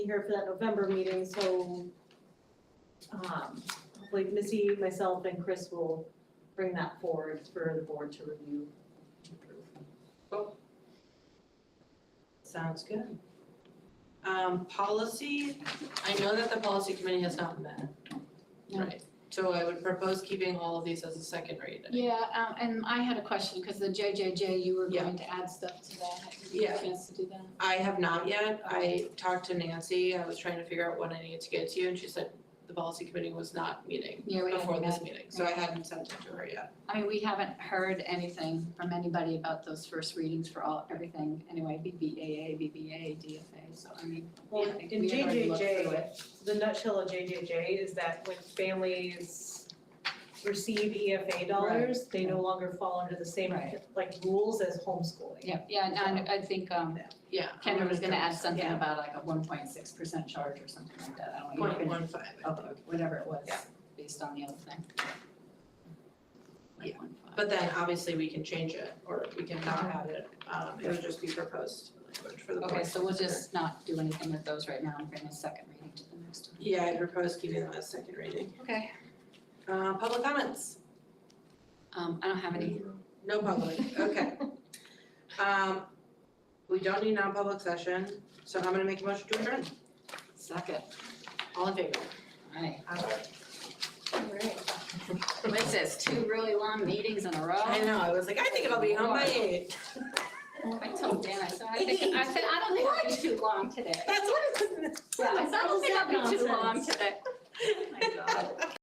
be here for that November meeting, so um, hopefully Missy, myself, and Chris will bring that forward for the board to review. Sounds good. Um, policy, I know that the policy committee has not met. No. Right, so I would propose keeping all of these as a second read. Yeah, um, and I had a question, because the JJJ, you were Yeah. going to add stuff to that, have you had Yeah. a chance to do that? I have not yet, I talked to Nancy, I was trying to figure out when I needed to get to you, and she said the policy committee was not meeting Yeah, we before haven't this had, meeting, so I hadn't sent it to her yet. I mean, we haven't heard anything from anybody about those first readings for all, everything, anyway, BBAA, BBA, DFA, so I mean, Well, I think in we had already looked through it. JJJ, the nutshell of JJJ is that when families receive EFA dollars, they no longer fall under the same Right. like rules as homeschooling. Yeah, yeah, no, and I think, um, Yeah. Kendra was gonna add something Yeah. about like a one point six percent charge or something like that, I don't know. Point one five, I Okay, think. whatever it was, Yeah. based on the other thing. Yeah. 1.5. But then obviously we can change it, or we can not add it, um, it would just be proposed language for the board. Okay, so we'll to consider. just not do anything with those right now and bring a second reading to the next one. Yeah, I propose keeping them as second reading. Okay. Uh, public comments? Um, I don't have any, No public, okay. Um, we don't need non-public session, so I'm gonna make a motion to adjourn. second, All in favor? aye. Aye. What is this, two really long meetings in a row? I know, I was like, I think it'll be home by eight. I told Dan, I said, I think, I said, I don't think it'll be too long today. That's what it's. I said, I don't think it'll be too Nonsense. long today. Oh my God.